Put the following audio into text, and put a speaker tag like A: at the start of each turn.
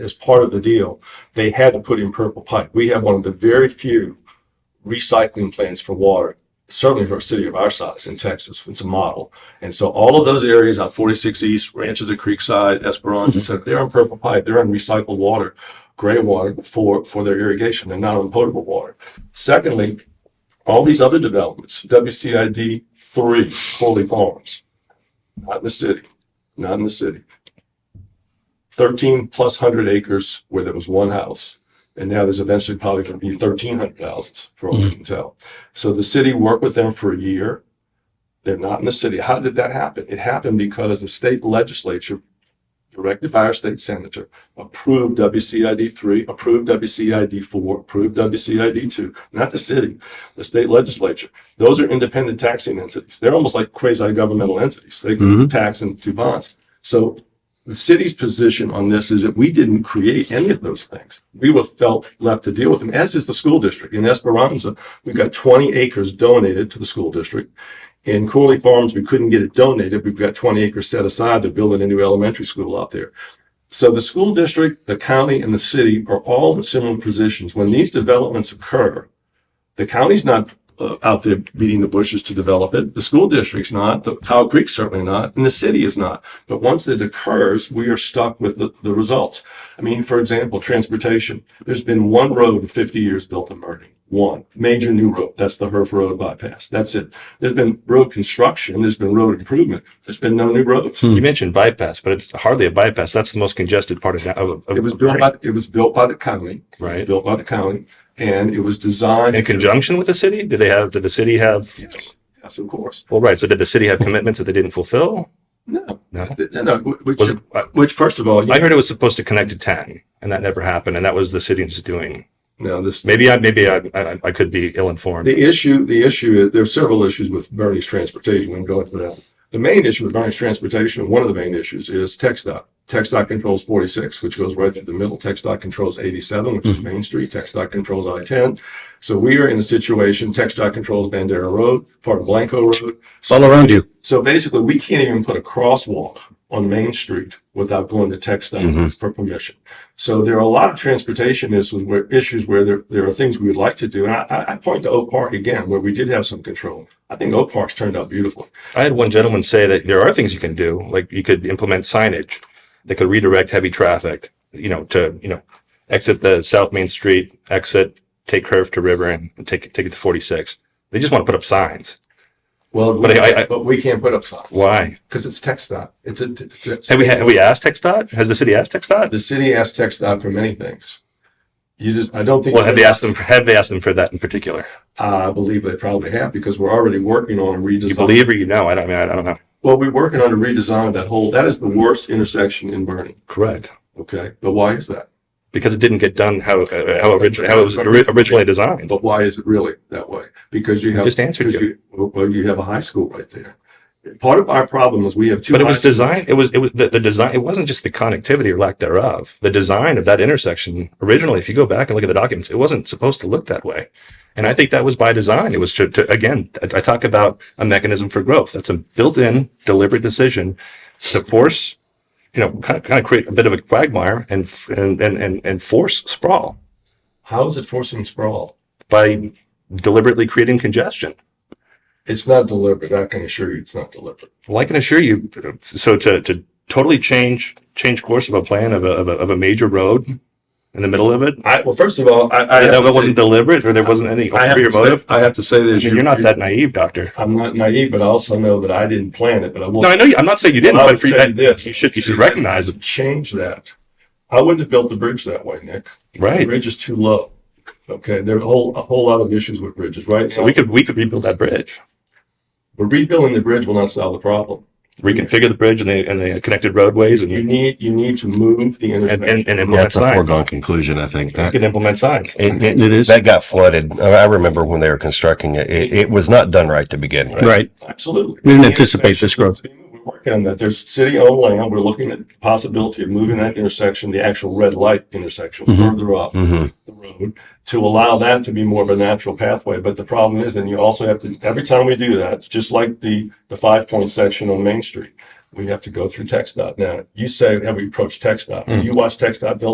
A: as part of the deal, they had to put in purple pipe. We have one of the very few recycling plants for water, certainly for a city of our size in Texas. It's a model. And so all of those areas on 46 East, Ranches at Creekside, Esperanza, et cetera, they're on purple pipe. They're on recycled water, gray water for, for their irrigation and not on potable water. Secondly, all these other developments, WCID three, Foley Farms, not in the city, not in the city. Thirteen plus hundred acres where there was one house. And now there's eventually probably going to be thirteen hundred houses for all we can tell. So the city worked with them for a year. They're not in the city. How did that happen? It happened because the state legislature, directed by our state senator, approved WCID three, approved WCID four, approved WCID two, not the city the state legislature. Those are independent taxing entities. They're almost like quasi governmental entities. They
B: Mhm.
A: tax and do bonds. So the city's position on this is that we didn't create any of those things. We were felt left to deal with them, as is the school district. In Esperanza, we got 20 acres donated to the school district. In Corley Farms, we couldn't get it donated. We've got 20 acres set aside to build a new elementary school out there. So the school district, the county, and the city are all in similar positions. When these developments occur, the county's not uh, out there beating the bushes to develop it. The school district's not, the Cow Creek certainly not, and the city is not. But once it occurs, we are stuck with the, the results. I mean, for example, transportation. There's been one road in 50 years built in Murphy. One major new road. That's the Herf Road bypass. That's it. There's been road construction. There's been road improvement. There's been no new roads.
B: Hmm.
C: You mentioned bypass, but it's hardly a bypass. That's the most congested part of that. Of, of,
A: It was built by, it was built by the county. It was
C: Right.
A: Built by the county and it was designed.
C: in conjunction with the city. Did they have? Did the city have?
A: Yes, yes, of course.
C: Well, right. So did the city have commitments that they didn't fulfill?
A: No,
C: No.
A: no, no. which-
C: Was it? I-
A: Which, first of all, you
C: I heard it was supposed to connect to ten, and that never happened. And that was the city's doing.
A: know, this
C: Maybe I. Maybe I. I, I could be ill informed.
A: the issue. The issue is there are several issues with Bernie's transportation. We can go into that. The main issue with Bernie's transportation, one of the main issues, is TxDOT. TxDOT controls 46, which goes right through the middle. TxDOT controls 87, which is Main Street. TxDOT controls I-10. So we are in a situation. TxDOT controls Bandera Road, part of Blanco Road.
B: It's all around you.
A: So basically, we can't even put a crosswalk on Main Street without going to text
C: Mm-hmm.
B: Mhm.
A: for permission. So there are a lot of transportation issues where issues where there, there are things we would like to do. And I- I, I point to Oak Park again, where we did have some control. I think Oak Park's turned out beautifully.
C: I had one gentleman say that there are things you can do, like you could implement signage that could redirect heavy traffic, you know, to you know, exit the South Main Street, exit, take curve to River, and take take it to forty six. They just want to put up signs.
A: Well,
C: But I- I-
A: but we can't put up signs
C: Why?
A: because it's text dot. It's a, it's a-
C: Have we have we asked TxDOT? Has the city asked TxDOT?
A: the city asked text dot for many things. You just, I don't think.
C: Well, have they asked them? For, have they asked them for that in particular?
A: I believe they probably have because we're already working on a redesign.
C: You believe or you know? I don't. I mean, I don't know.
A: Well, we're working on a redesign of that whole, that is the worst intersection in Bernie.
C: Correct.
A: Okay, but why is that?
C: Because it didn't get done how uh, how originally how it was ori- originally designed.
A: But why is it really that way? Because you
C: I
A: have
C: just answered
A: because
C: you.
A: you, well, you have a high school right there. Part of our problem is we have two.
C: But it
A: high
C: was
A: schools.
C: designed. It was it was the, the design. It wasn't just the connectivity or lack thereof. The design of that intersection originally, if you go back and look at the documents, it wasn't supposed to look that way. And I think that was by design. It was to, to again. I I talk about a mechanism for growth. That's a built-in, deliberate decision to force, you know, kind of, kind of create a bit of a quagmire and f- and and and, and force sprawl
A: How is it forcing sprawl?
C: by deliberately creating congestion.
A: It's not deliberate. I can assure you, it's not deliberate.
C: Well, I can assure you. So to to totally change change course of a plan of a of a, of a major road in the middle of it.
A: I, well, first of all, I, I.
C: that,
A: have
C: that
A: to
C: wasn't deliberate, or there wasn't any
A: say- I have
C: ulterior
A: to say-
C: motive.
A: I have to say
C: I
A: this.
C: mean, you're not that naive, doctor.
A: I'm not naive, but I also know that I didn't plan it, but I will.
C: No, I know. You, I'm not saying you didn't,
A: Well, I
C: but
A: would
C: for you,
A: say
C: that-
A: this.
C: you should you should recognize it,
A: Change that. I wouldn't have built the bridge that way, Nick. The
C: right?
A: bridge is too low. Okay, there are a whole, a whole lot of issues with bridges, right?
C: So we could we could rebuild that bridge,
A: But rebuilding the bridge will not solve the problem.
C: reconfigure the bridge and the and the connected roadways, and
A: You
C: and
A: need, you need to move the
C: and,
A: intersection.
C: and implement
B: That's a
C: signs.
B: foregone conclusion, I think.
C: You
B: That
C: can implement signs.
B: it, it, it is that got flooded. I I remember when they were constructing it. It, it was not done right to begin with.
D: Right.
A: Absolutely.
D: We didn't anticipate this growth.
A: We're working on that. There's city-owned land. We're looking at the possibility of moving that intersection, the actual red light intersection
D: Mhm.
A: further up
B: hmm
A: the road to allow that to be more of a natural pathway. But the problem is, and you also have to, every time we do that, just like the, the five point section on Main Street, we have to go through TxDOT. Now, you say, have we approached TxDOT? You watch TxDOT build